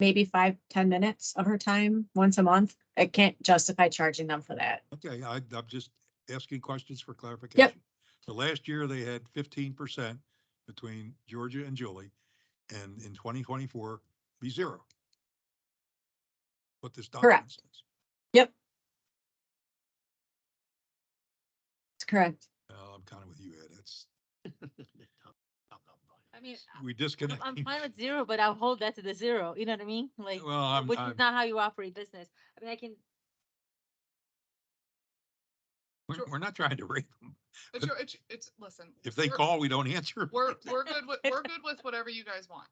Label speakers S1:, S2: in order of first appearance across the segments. S1: maybe five, ten minutes of her time once a month. I can't justify charging them for that.
S2: Okay, I, I'm just asking questions for clarification. So last year, they had fifteen percent between Georgia and Julie, and in twenty twenty-four, be zero. What this document
S1: Correct.
S2: says.
S1: It's correct.
S2: Uh, I'm kind of with you, Ed. It's,
S3: I mean,
S1: Ah,
S2: we disconnect.
S3: I'm fine with zero, but I'll hold that to the zero. You know what I mean? Like,
S2: Well, I'm,
S3: which
S2: I'm,
S3: is not how you operate business. I mean, I can,
S2: we're we're not trying to rate them.
S4: It's, your- it's, it's, listen.
S2: If they
S4: we're-
S2: call, we don't answer.
S4: We're, we're good with, we're good with whatever you guys want.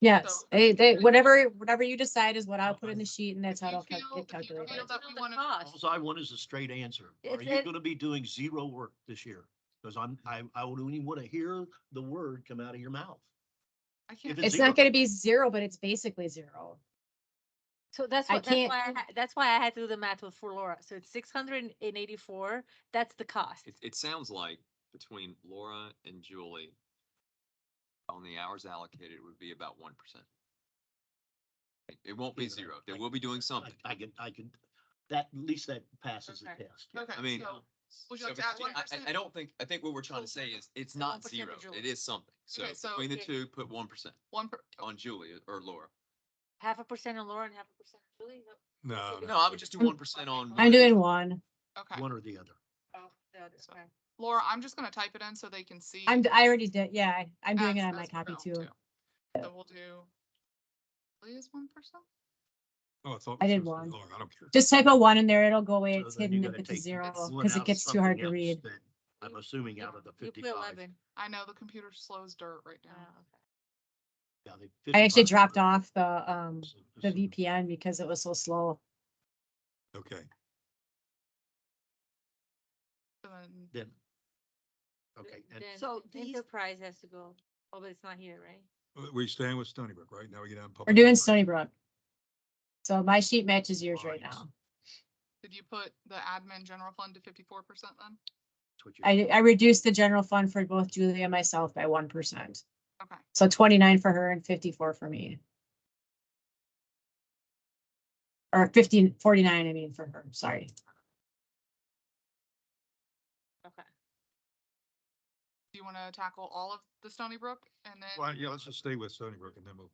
S1: Yes, they, they, whatever, whatever you decide is what I'll put in the sheet and that's how
S4: If
S1: it'll
S4: you
S1: cal-
S4: feel-
S1: get
S4: if you
S1: calculated.
S4: feel
S3: It's
S4: that
S3: not
S4: we
S3: the
S4: wanna-
S3: cost.
S5: All I want is a straight answer. Are
S3: uh, It's-
S5: you
S3: it-
S5: gonna be doing zero work this year? Cause I'm, I, I wouldn't even wanna hear the word come out of your mouth.
S4: I can't-
S5: If
S1: It's
S5: zero.
S1: not gonna be zero, but it's basically zero.
S3: so that's
S1: I
S3: what, that's
S1: can't-
S3: why, I ha- that's why I had to do the math with for Laura. So it's six hundred and eighty-four. That's the cost.
S6: It, it sounds like between Laura and Julie, on the hours allocated would be about one percent. It won't be
S5: Yeah,
S6: zero.
S5: I-
S6: They will be doing something.
S5: I I can, I can, that, at least that passes the
S4: Okay.
S5: test.
S4: Okay,
S6: I mean,
S4: so would you
S6: So
S4: like to add
S6: between- I- I,
S4: 1%?
S6: I don't think, I think what we're trying to say is, it's
S3: So 1%
S6: not
S3: for
S6: zero. It
S3: Julie.
S6: is something. So
S4: Okay, so-
S6: between the
S3: Yeah.
S6: two, put one percent
S4: One per,
S6: on Julie or Laura.
S3: Half a percent on Laura and half a percent on Julie. No,
S2: No,
S6: No, I would just do
S1: I'm-
S6: one percent on.
S1: I'm doing one.
S4: okay.
S5: One or the other.
S3: oh, no, that's
S4: So-
S3: fine.
S4: Laura, I'm just gonna type it in so they can see.
S1: I'm, I already did, yeah, I- I'm doing it
S4: as-
S1: on my
S4: as we
S1: copy
S4: go,
S1: too.
S4: So we'll do. Please, one person?
S2: Oh, I thought.
S1: I
S2: this
S1: did
S2: was
S1: one.
S2: Laura, I don't care.
S1: Just type a one in there, it'll go away,
S5: So
S1: it's
S5: then you
S1: hidden if
S5: gotta
S1: it's a
S5: take
S1: zero,
S5: that one
S1: cause
S5: out
S1: it
S5: of
S1: gets too hard to
S5: something
S1: read.
S5: else that I'm assuming out of the
S3: You put
S5: fifty-five.
S3: eleven.
S4: I know the computer slows dirt right
S3: Oh,
S4: now.
S3: okay.
S5: yeah, the
S1: I
S5: 55
S1: actually dropped off the, um,
S5: Assume-
S1: the
S5: assume-
S1: VPN because it was so slow.
S2: Okay,
S4: So then-
S5: Then. Okay,
S3: Th-
S5: and
S3: then
S7: So these-
S3: Enterprise has to go. Oh, but it's not here, right?
S2: We- we staying with Stony Brook, right? Now we get on.
S1: We're
S2: public
S1: doing
S2: comment.
S1: Stony Brook. So my sheet matches yours right
S5: Lines.
S1: now.
S4: Did you put the admin general fund to fifty-four percent then?
S5: that's what you're,
S1: I, I reduced the general fund for both Julie and myself by one percent.
S4: Okay,
S1: So twenty-nine for her and fifty-four for me. Or 15 49. I mean, for her, sorry.
S3: Okay.
S4: do you wanna tackle all of the Stony Brook and then,
S2: Well, yeah, let's just stay with Stony Brook and then we'll,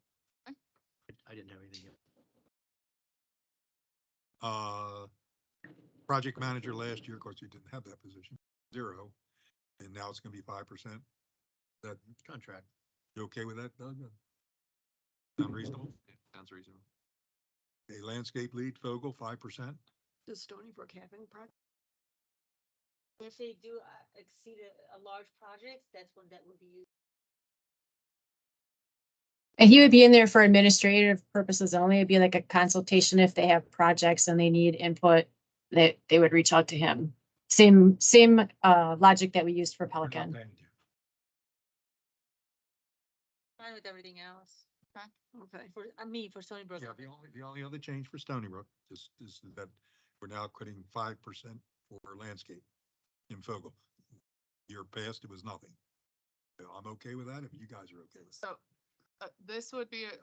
S5: I didn't have anything. else.
S2: uh, project manager last year, of course, you didn't have that position, zero. And now it's gonna be five percent. That,
S5: Contract.
S2: you okay with that, Doug? Sound reasonable?
S6: Yeah, Sounds reasonable.
S2: A landscape lead, Fogle, five percent.
S7: Does Stony Brook have any projects?
S3: If they do uh, exceed a, a large project, that's when that would be used.
S1: And he would be in there for administrative purposes only. It'd be like a consultation if they have projects and they need input. They, they would reach out to him. Same, same, uh, logic that we used for Pelican.
S3: Fine with everything else.
S7: Okay.
S3: For, I mean, for Stony Brook.
S2: Yeah, the
S3: okay.
S2: only, the only other change for Stony Brook is, is that we're now quitting five percent for landscape in Fogle. Year past, it was nothing. So I'm okay with that, if you guys are okay with that.
S4: so, uh, this would be, a-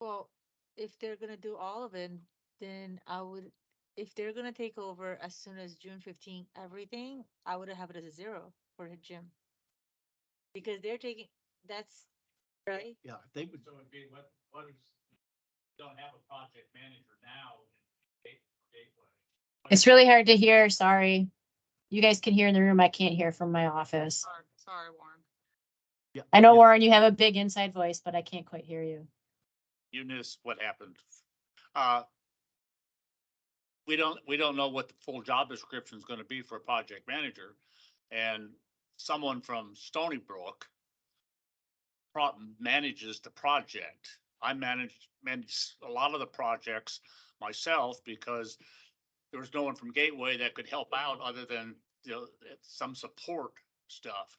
S3: Well, if they're gonna do all of it, then I would, if they're gonna take over as soon as June fifteen, everything, I would have it as a zero for the gym. Because they're taking, that's, right?
S5: Yeah, if they would,
S8: So it'd be what, what is, don't have a project manager now in Gate- Gateway.
S1: It's really hard to hear, sorry. You guys can hear in the room. I can't hear from my office.
S4: sorry, sorry, Warren.
S5: yeah.
S1: I know,
S5: yeah.
S1: Warren, you have a big inside voice, but I can't quite hear you.
S8: You missed what happened. Uh, We don't, we don't know what the full job description is gonna be for a project manager. And someone from Stony Brook pro- manages the project. I manage, manage a lot of the projects myself because there was no one from Gateway that could help out other than, you know, some support stuff.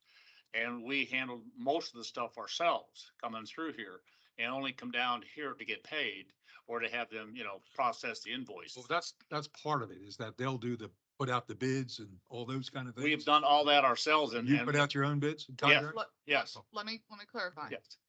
S8: And we handled most of the stuff ourselves coming through here and only come down here to get paid or to have them, you know, process the invoice.
S2: Well, that's, that's part of it, is that they'll do the, put out the bids and all those kind of things.
S8: We have done all that ourselves and,
S2: You put
S8: and,
S2: out your own bids and
S8: Yeah.
S2: contracts?
S4: Let-
S8: yes,
S4: Let me, let me clarify.
S8: yes.